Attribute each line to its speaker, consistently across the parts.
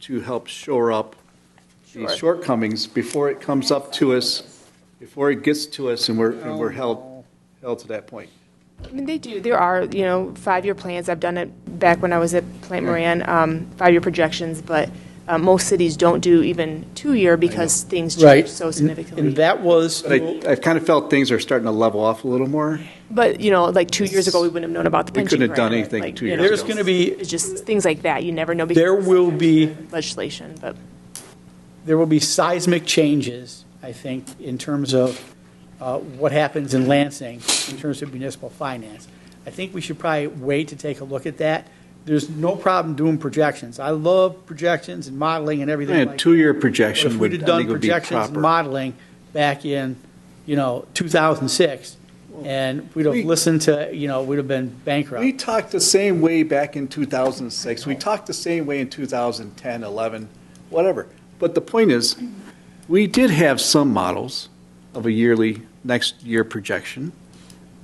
Speaker 1: to help shore up the
Speaker 2: Sure.
Speaker 1: shortcomings before it comes up to us, before it gets to us and we're, and we're held, held to that point.
Speaker 2: I mean, they do. There are, you know, five-year plans. I've done it back when I was at Plant Moran, um, five-year projections, but uh, most cities don't do even two-year because things
Speaker 3: Right.
Speaker 2: change so
Speaker 3: And-
Speaker 2: significantly.
Speaker 3: And that was,
Speaker 1: But I, I've kind of felt things are starting to level off a little more.
Speaker 2: But, you know, like two years ago, we wouldn't have known about the
Speaker 1: We
Speaker 2: pension.
Speaker 1: couldn't have done
Speaker 2: grant.
Speaker 1: anything
Speaker 2: Like,
Speaker 1: two
Speaker 2: you
Speaker 1: years
Speaker 2: know,
Speaker 1: ago.
Speaker 3: there's going to be,
Speaker 2: It's just things like that. You never know. because
Speaker 3: there will be,
Speaker 2: Legislation, but
Speaker 3: there will be seismic changes, I think, in terms of uh, what happens in Lansing in terms of municipal finance. I think we should probably wait to take a look at that. There's no problem doing projections. I love projections and modeling and everything like
Speaker 1: And
Speaker 3: that.
Speaker 1: a two-year
Speaker 3: But
Speaker 1: projection
Speaker 3: if
Speaker 1: would,
Speaker 3: we'd have
Speaker 1: I
Speaker 3: done
Speaker 1: think would be
Speaker 3: projections and
Speaker 1: proper.
Speaker 3: modeling back in, you know, 2006, and we'd have
Speaker 1: we-
Speaker 3: listened to, you know, we'd have been
Speaker 1: We
Speaker 3: bankrupt.
Speaker 1: talked the same way back in 2006. We talked the same way in 2010, 11, whatever. But the point is, we did have some models of a yearly, next year projection.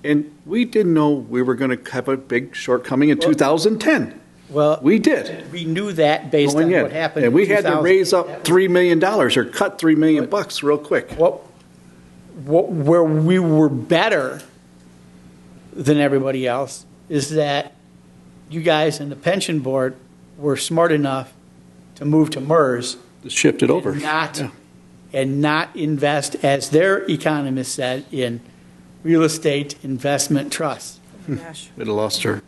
Speaker 1: And we didn't know we were going to have a big shortcoming in 2010.
Speaker 3: Well,
Speaker 1: We did,
Speaker 3: we knew that based on
Speaker 1: going in.
Speaker 3: what happened.
Speaker 1: And
Speaker 3: in
Speaker 1: we had to
Speaker 3: 2000.
Speaker 1: raise up $3 million or cut 3 million bucks real quick.
Speaker 3: What, what, where we were better than everybody else is that you guys in the pension board were smart enough to move to MERS
Speaker 1: Shifted over.
Speaker 3: And not,
Speaker 1: Yeah.
Speaker 3: and not invest, as their economist said, in real estate investment trusts.
Speaker 1: We'd have lost her.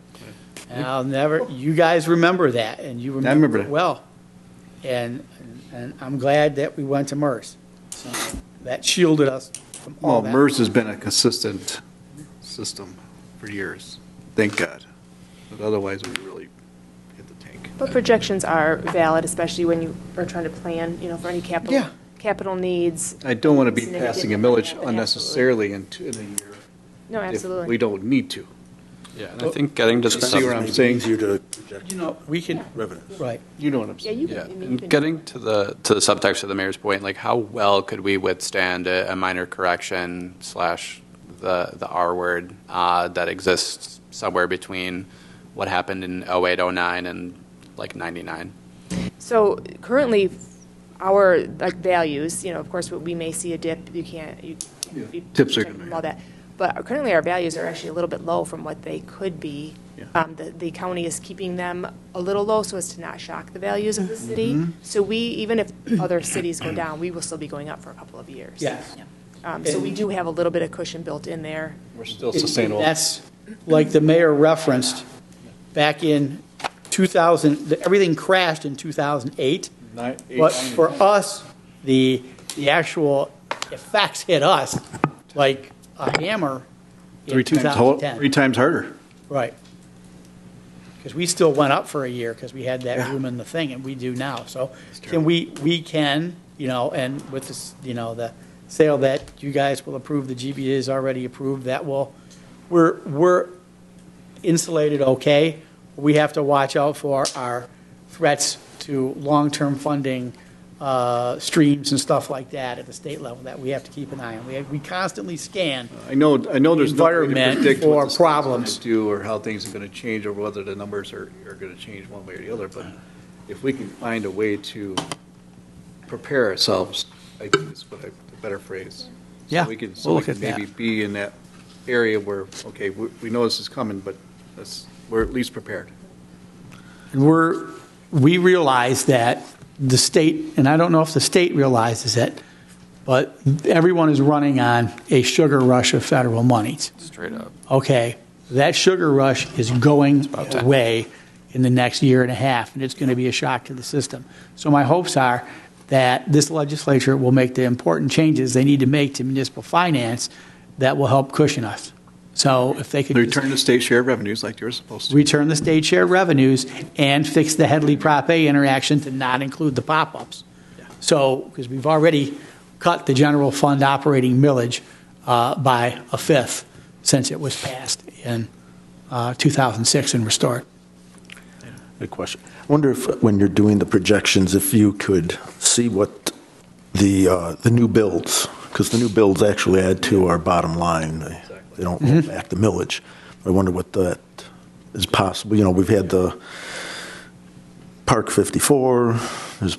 Speaker 3: And I'll never, you guys remember that, and you
Speaker 1: remember
Speaker 3: remember it
Speaker 1: that.
Speaker 3: well. And, and I'm glad that we went to MERS. So That shielded us from all
Speaker 1: Well,
Speaker 3: that.
Speaker 1: MERS has been a consistent system for years, thank God. But otherwise, we really hit the tank.
Speaker 2: But projections are valid, especially when you are trying to plan, you know, for any capital,
Speaker 3: Yeah.
Speaker 2: capital needs.
Speaker 1: I don't want to be
Speaker 2: Significant
Speaker 1: passing a millage
Speaker 2: amount,
Speaker 1: unnecessarily in, t- in a year.
Speaker 2: No,
Speaker 1: if
Speaker 2: absolutely.
Speaker 1: We don't need to.
Speaker 4: Yeah, and I think getting to the
Speaker 1: See where
Speaker 4: sub,
Speaker 1: I'm saying?
Speaker 5: Easier to project
Speaker 3: You know, we can,
Speaker 5: revenues.
Speaker 3: right.
Speaker 1: You know what I'm
Speaker 2: Yeah,
Speaker 1: saying?
Speaker 2: you can.
Speaker 4: yeah,
Speaker 2: I mean, you
Speaker 4: and
Speaker 2: can-
Speaker 4: getting to the to the subtext of the mayor's point, like how well could we withstand a, a minor correction slash the the R word uh, that exists somewhere between what happened in 08, 09, and like 99?
Speaker 2: So currently, our, like, values, you know, of course, we may see a dip, you can't, you. can't be
Speaker 1: Tips are
Speaker 2: protected
Speaker 1: gonna
Speaker 2: from
Speaker 1: be-
Speaker 2: All that, but currently, our values are actually a little bit low from what they could be.
Speaker 1: Yeah.
Speaker 2: Um, the, the county is keeping them a little low so as to not shock the values of the
Speaker 1: Mm-hmm.
Speaker 2: city. So we, even if other cities go down, we will still be going up for a couple of years.
Speaker 3: Yes.
Speaker 2: Um, so we do have a little bit of cushion built in there.
Speaker 1: We're still sustainable.
Speaker 3: That's, like the mayor referenced, back in 2000, everything crashed in 2008.
Speaker 1: Nine- eight,
Speaker 3: But
Speaker 1: nine,
Speaker 3: for us, the, the actual effects hit us like a hammer in
Speaker 1: Three times, ho-
Speaker 3: 2010.
Speaker 1: three times harder.
Speaker 3: Right. Because we still went up for a year because we had that room in the thing, and we do now. So
Speaker 1: true.
Speaker 3: can we, we can, you know, and with this, you know, the sale that you guys will approve, the GBA is already approved, that will, we're, we're insulated okay. We have to watch out for our threats to long-term funding uh, streams and stuff like that at the state level that we have to keep an eye on. We, we constantly scan.
Speaker 1: I know, I know there's no way to
Speaker 3: Environment
Speaker 1: predict what
Speaker 3: or
Speaker 1: the state's gonna
Speaker 3: problems.
Speaker 1: do or how things are going to change or whether the numbers are, are going to change one way or the other. But if we can find a way to prepare ourselves, I think is what I, a better phrase. So
Speaker 3: Yeah,
Speaker 1: we can, so
Speaker 3: we'll
Speaker 1: we
Speaker 3: look
Speaker 1: can
Speaker 3: at that.
Speaker 1: maybe be in that area where, okay, we, we know this is coming, but let's, we're at least prepared.
Speaker 3: And we're, we realize that the state, and I don't know if the state realizes it, but everyone is running on a sugar rush of federal monies.
Speaker 4: Straight up.
Speaker 3: Okay, that sugar rush is going
Speaker 4: about time.
Speaker 3: away in the next year and a half, and it's going to be a shock to the system. So my hopes are that this legislature will make the important changes they need to make to municipal finance that will help cushion us. So if they could. just-
Speaker 1: Return to state share revenues like you're supposed to.
Speaker 3: return the state share revenues, and fix the Headley Prop A interaction to not include the pop-ups. So, because we've already cut the general fund operating millage uh, by a fifth since it was passed in uh, 2006 and restored.
Speaker 5: Good question. I wonder if, when you're doing the projections, if you could see what the, uh, the new builds, because the new builds actually add to our bottom line. They- They don't roll back the millage. I wonder what that is possible. You know, we've had the Park 54, there's